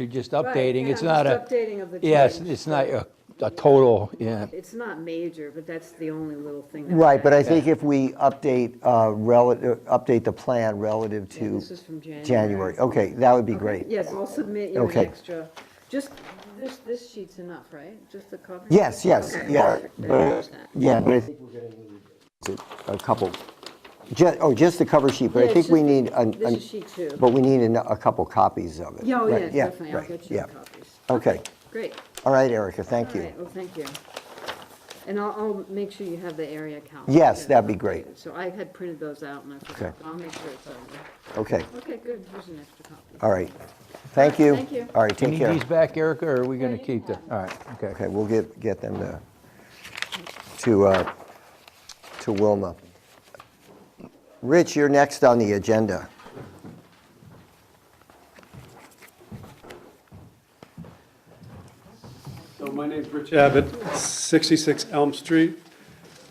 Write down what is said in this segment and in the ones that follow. You're just Right, updating, yeah, it's not a. just Updating of the change. Yes, it's not a a total, yeah. It's not major, but that's the only little thing. that- Right, but I think if we update, uh, relative, update the plan relative Yeah, to This is from January. January, okay, that would be great. Yes, I'll submit you an Okay. extra, just, this, this sheet's enough, right? Just the cover? Yes, yes, Okay. yeah, Perfect. but, yeah, but I think we're gonna need a couple, ju, oh, just the cover sheet, but Yeah, I it's think we just- need, an- This an- is sheet two. but we need a, a couple copies of it. Yeah, oh, yeah, Right, definitely, I'll right, get you the yeah. copies. Okay, Great. all right, Erica, thank All you. right, well, thank you. And I'll, I'll make sure you have the area count. Yes, too, that'd be great. updated. So I had printed those out and I forgot, Okay. I'll make sure it's on there. Okay, Okay, good, here's an extra copy. all right, thank you. Thank you. All right, Do you take need care. these back, Erica, or are we going you to can keep them? have All right, okay. Okay, we'll get, get them to, to, uh, to Wilma. Rich, you're next on the agenda. So my name's Rich Abbott, 66 Elm Street,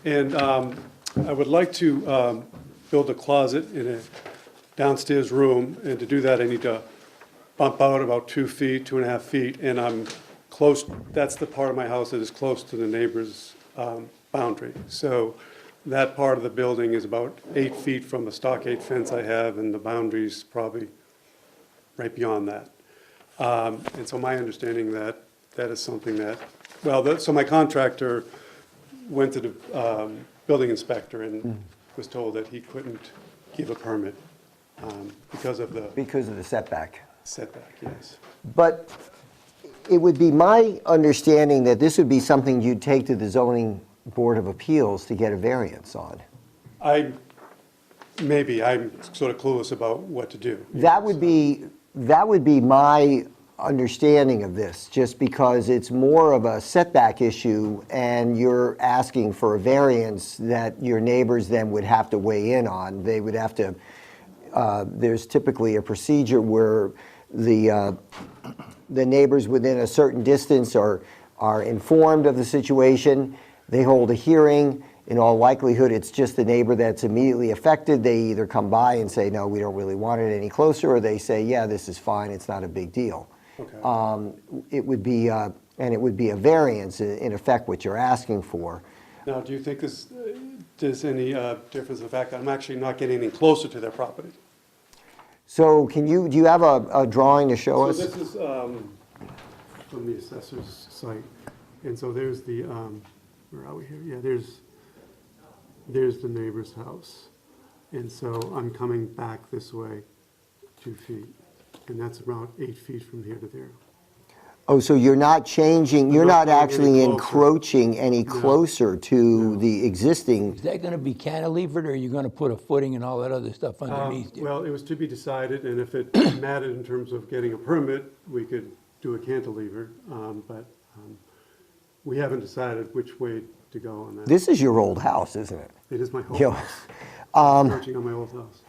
and um, I would like to um, build a closet in a downstairs room, and to do that, I need to bump out about two feet, two and a half feet, and I'm close, that's the part of my house that is close to the neighbor's um, boundary. So that part of the building is about eight feet from the stockade fence I have, and the boundary's probably right beyond that. Um, And so my understanding that, that is something that, well, that- so my contractor went to the um, building inspector and was told that he couldn't give a permit um, because of the Because of the setback. setback, yes. But it would be my understanding that this would be something you'd take to the zoning board of appeals to get a variance on. I, maybe, I'm sort of clueless about what to do. That would be, that would be my understanding of this, just because it's more of a setback issue and you're asking for a variance that your neighbors then would have to weigh in on. They would have to, uh, there's typically a procedure where the, uh, the neighbors within a certain distance are, are informed of the situation. They hold a hearing. In all likelihood, it's just the neighbor that's immediately affected. They either come by and say, no, we don't really want it any closer, or they say, yeah, this is fine, it's not a big deal. Okay. Um, It would be, uh, and it would be a variance, i- in effect, what you're asking for. Now, do you think this, there's any uh, difference in the fact that I'm actually not getting any closer to their property? So can you, do you have a, a drawing to show So us? this is um, from the assessor's site, and so there's the, um, where are we here? Yeah, there's, there's the neighbor's house. And so I'm coming back this way two feet, and that's about eight feet from here to there. Oh, so you're not changing, you're not not going any actually closer. encroaching any closer to the existing Is that going to be cantilevered, or are you going to put a footing and all that other stuff underneath it? Well, it was to be decided, and if it mattered in terms of getting a permit, we could do a cantilever, um, but um, we haven't decided which way to go on that. This is your old house, isn't it? It is my You whole know, house, approaching on my old house.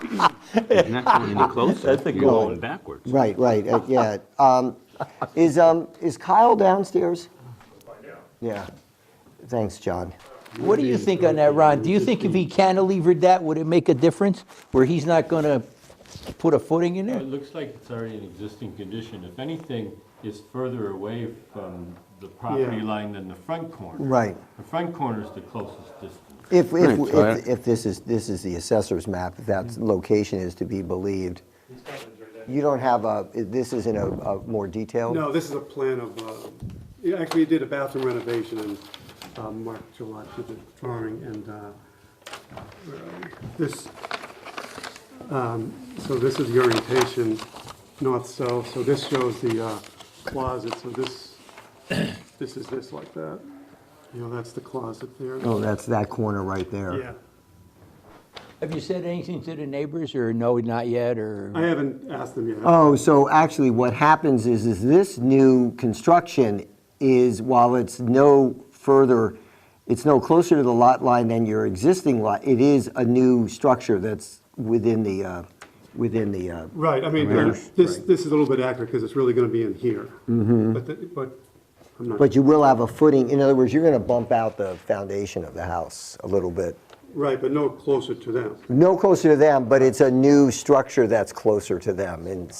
You're not going any closer. You're going backwards. Right, right, uh, yeah. Um, Is, um, is Kyle downstairs? Yeah. Thanks, John. What do you think on that, Ron? Do you think if he cantilevered that, would it make a difference, where he's not going to put a footing in It there? looks like it's already an existing condition. If anything, it's further away from the property Yeah. line than the front corner. Right. The front corner is the closest distance. If, if, Right, so I- if- if this is, this is the assessor's map, if that location is to be believed. You don't have a, this isn't a, a more detailed? No, this is a plan of, uh, yeah, actually, he did a bathroom renovation and uh, Mark Gillette did the drawing and uh, where are we? this, um, so this is the orientation, north-south, so this shows the uh, closet, so this, this is this like that. You know, that's the closet there. Oh, that's that corner right there. Yeah, Have you said anything to the neighbors, or no, not yet, or? I haven't asked them yet. Oh, so actually what happens is, is this new construction is, while it's no further, it's no closer to the lot line than your existing lot, it is a new structure that's within the, uh, within the, uh, Right, I mean, uh, this, this is a little bit accurate because it's really going to be in here. But, the- Mm-hmm. but, I'm not. but you will have a footing, in other words, you're gonna bump out the foundation of the house a little bit. Right, but no closer to them. No closer to them, but it's a new structure that's closer to them in